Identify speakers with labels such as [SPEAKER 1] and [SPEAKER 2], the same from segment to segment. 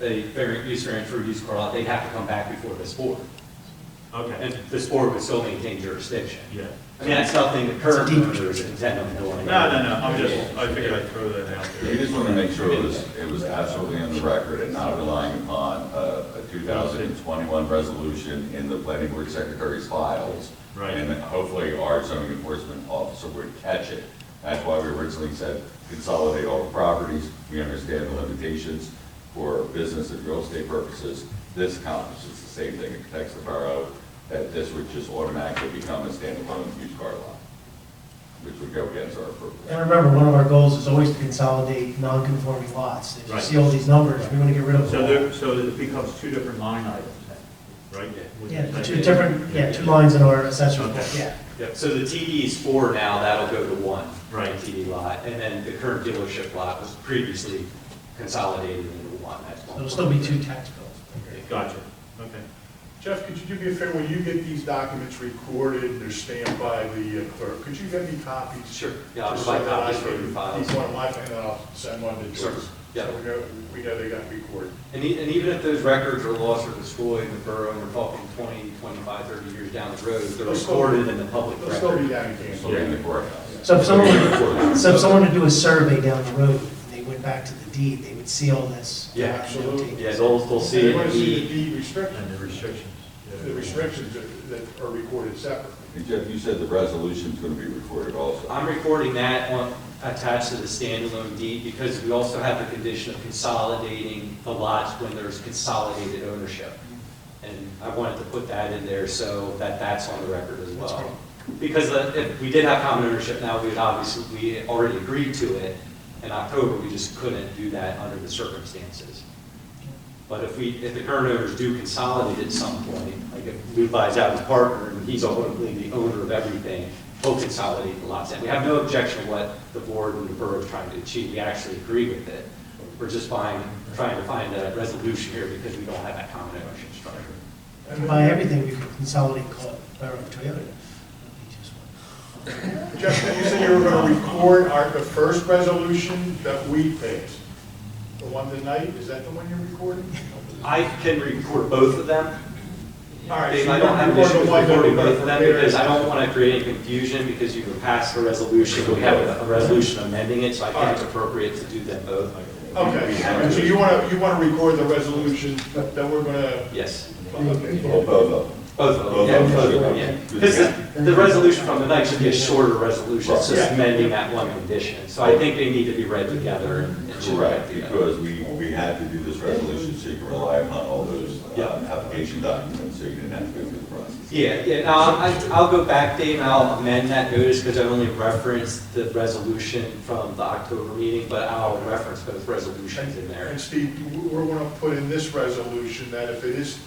[SPEAKER 1] a variant, use variance for a used car lot, they'd have to come back before this board. And
[SPEAKER 2] Okay,
[SPEAKER 1] this board would still maintain jurisdiction.
[SPEAKER 2] yeah.
[SPEAKER 1] I mean, that's something the current owners intend on doing.
[SPEAKER 2] No, no, no, I'm just, I figured I'd throw that out
[SPEAKER 3] We
[SPEAKER 2] there.
[SPEAKER 3] just want to make sure it was, it was absolutely on the record and not relying upon a, a two thousand and twenty-one resolution in the planning board secretary's files.
[SPEAKER 2] Right.
[SPEAKER 3] And hopefully our zoning enforcement officer would catch it. That's why we originally said consolidate all the properties. We understand the limitations for business and real estate purposes. This accomplishes the same thing. It protects the borough, that this would just automatically become a standalone used car lot, which would go against our purpose.
[SPEAKER 4] And remember, one of our goals is always to consolidate non-conforming lots. If you
[SPEAKER 2] Right.
[SPEAKER 4] see all these numbers, we want to get rid of
[SPEAKER 2] So
[SPEAKER 4] them.
[SPEAKER 2] there, so it becomes two different line items, then, right? Would you
[SPEAKER 4] Yeah,
[SPEAKER 2] say?
[SPEAKER 4] two different, yeah, two lines in our assessor's book,
[SPEAKER 2] Okay.
[SPEAKER 4] yeah.
[SPEAKER 1] Yep, so the TD is four now, that'll go to one.
[SPEAKER 2] Right.
[SPEAKER 1] TD lot, and then the current dealership lot was previously consolidated into one. That's
[SPEAKER 4] So
[SPEAKER 1] one.
[SPEAKER 4] There'll still be two tax bills.
[SPEAKER 2] Gotcha, okay.
[SPEAKER 5] Jeff, could you do me a favor, when you get these documents recorded, they're stamped by the uh, clerk, could you get me copies?
[SPEAKER 1] Sure. Yeah, I'll
[SPEAKER 5] Just
[SPEAKER 1] provide
[SPEAKER 5] so that I
[SPEAKER 1] copies for
[SPEAKER 5] can-
[SPEAKER 1] your files.
[SPEAKER 5] Each one of my, and then I'll send one to
[SPEAKER 1] Sure.
[SPEAKER 5] George.
[SPEAKER 1] Yeah.
[SPEAKER 5] So we know, we know they got recorded.
[SPEAKER 1] And e- and even if those records are lost or destroyed in the borough, and we're talking 20, 25, 30 years down the road, they're
[SPEAKER 5] They'll still-
[SPEAKER 1] recorded in the public
[SPEAKER 5] They'll still be
[SPEAKER 1] record.
[SPEAKER 5] down in
[SPEAKER 3] So we're in the courthouse.
[SPEAKER 4] So if someone, were- so if someone were to do a survey down the road, and they went back to the deed, they would see all this.
[SPEAKER 1] Yeah,
[SPEAKER 5] absolutely.
[SPEAKER 1] Yeah, they'll, they'll see
[SPEAKER 5] They want to see the
[SPEAKER 1] it.
[SPEAKER 5] deed restrictions,
[SPEAKER 2] And the restrictions. yeah.
[SPEAKER 5] the restrictions that- that are recorded separately.
[SPEAKER 3] And Jeff, you said the resolution's gonna be recorded also.
[SPEAKER 1] I'm recording that on, attached to the standalone deed, because we also have the condition of consolidating the lots when there's consolidated ownership. And I wanted to put that in there so that that's on the record as
[SPEAKER 4] That's
[SPEAKER 1] well.
[SPEAKER 4] great.
[SPEAKER 1] Because uh, if we did have common ownership now, we would obviously, we already agreed to it in October, we just couldn't do that under the circumstances. But if we, if the current owners do consolidate at some point, like if Levi's out his partner and he's ultimately the owner of everything, he'll consolidate the lots. And we have no objection to what the board and the borough is trying to achieve. We actually agree with it. We're just fine, trying to find a resolution here because we don't have that common ownership structure.
[SPEAKER 4] If we buy everything, we could consolidate, call it Borough of Toyota. That'd be just one.
[SPEAKER 5] Jeff, you said you were going to record our, the first resolution that we passed. The one tonight, is that the one you're recording?
[SPEAKER 1] I can record both of them.
[SPEAKER 5] All right,
[SPEAKER 1] Dave,
[SPEAKER 5] so
[SPEAKER 1] I don't have an
[SPEAKER 5] you're
[SPEAKER 1] issue with
[SPEAKER 5] recording
[SPEAKER 1] recording
[SPEAKER 5] one
[SPEAKER 1] both of them
[SPEAKER 5] there.
[SPEAKER 1] because I don't want to create any confusion because you can pass a resolution, we have a- a resolution amending it, so I think it's appropriate to do them both.
[SPEAKER 5] Okay, and so you want to, you want to record the resolution that we're going to,
[SPEAKER 1] Yes.
[SPEAKER 3] Well,
[SPEAKER 5] okay,
[SPEAKER 3] both of them.
[SPEAKER 1] Both of them,
[SPEAKER 3] Both
[SPEAKER 1] yeah,
[SPEAKER 3] of them.
[SPEAKER 1] both of them, yeah. Because the, the resolution from the night should be a shorter resolution, it's just
[SPEAKER 5] Right.
[SPEAKER 1] amending that one condition. So I think they need to be read together and and should be read
[SPEAKER 3] Correct,
[SPEAKER 1] together.
[SPEAKER 3] because we, we had to do this resolution so you can rely upon all those uh,
[SPEAKER 1] Yeah.
[SPEAKER 3] application documents, so you didn't have to go through the process.
[SPEAKER 1] Yeah, yeah, now, I- I'll go back, Dave, and I'll amend that notice because I only referenced the resolution from the October meeting, but I'll reference both resolutions in there.
[SPEAKER 5] and Steve, you- we're going to put in this resolution that if it is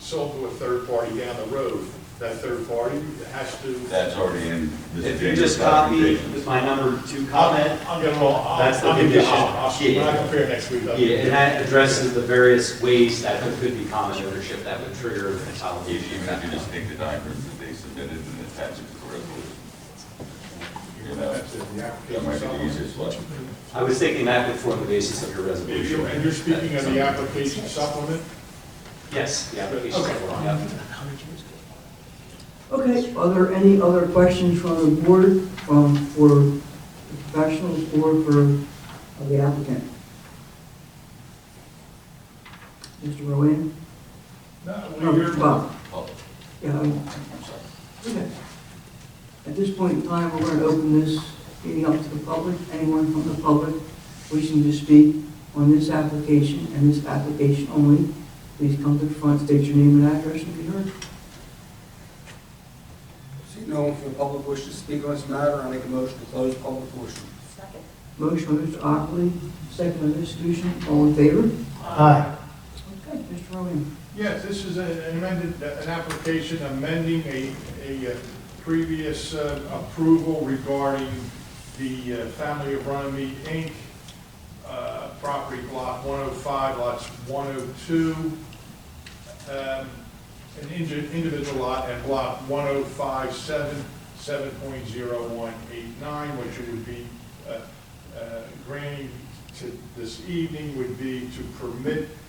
[SPEAKER 5] sold to a third party down the road, that third party has to.
[SPEAKER 3] That's already in Mr.
[SPEAKER 1] If you
[SPEAKER 3] James'
[SPEAKER 1] just copy
[SPEAKER 3] documentation.
[SPEAKER 1] my number two comment,
[SPEAKER 5] I'll, I'll get it all, I'll,
[SPEAKER 1] That's the
[SPEAKER 5] I'll give you,
[SPEAKER 1] condition.
[SPEAKER 5] I'll, I'll, when I
[SPEAKER 1] Yeah.
[SPEAKER 5] compare next week. I'll-
[SPEAKER 1] yeah, and that addresses the various ways that there could be common ownership that would trigger the
[SPEAKER 3] Even
[SPEAKER 1] consolidation.
[SPEAKER 3] if you just take the documents that they submitted and attach it to the resolution. You know,
[SPEAKER 5] That's it, the
[SPEAKER 3] that
[SPEAKER 5] application
[SPEAKER 3] might be the
[SPEAKER 5] summary.
[SPEAKER 3] easiest one.
[SPEAKER 1] I was thinking that would form the basis of your
[SPEAKER 5] If
[SPEAKER 1] resolution.
[SPEAKER 5] you- And you're speaking of the application supplement?
[SPEAKER 1] Yes, the application
[SPEAKER 5] Okay.
[SPEAKER 1] form, yeah.
[SPEAKER 6] Okay, are there any other questions from the board, um, for the professionals or for the applicant? Mr. Rowan?
[SPEAKER 5] No,
[SPEAKER 6] Um,
[SPEAKER 5] we're-
[SPEAKER 6] Bob?
[SPEAKER 3] Oh,
[SPEAKER 6] Yeah, I'm-
[SPEAKER 3] I'm sorry.
[SPEAKER 6] okay. At this point in time, we're going to open this meeting up to the public. Anyone from the public wishing to speak on this application and this application only, please come to the front, state your name and address, and be heard.
[SPEAKER 7] See no one from the public wishes to speak on this matter, I make a motion to close public portion.
[SPEAKER 6] Motion by Mr. Ockley, second by Ms. Fusion, all in favor?
[SPEAKER 2] Uh,
[SPEAKER 4] Aye.
[SPEAKER 6] Okay, Mr. Rowan.
[SPEAKER 5] Yes, this is an amended, an application amending a, a uh, previous uh, approval regarding the uh, Family of Runnymede Inc., uh, property block 105, lots 102, um, an indi- individual lot and block 1057, 7.0189, which it would be uh, uh, granting to this evening would be to permit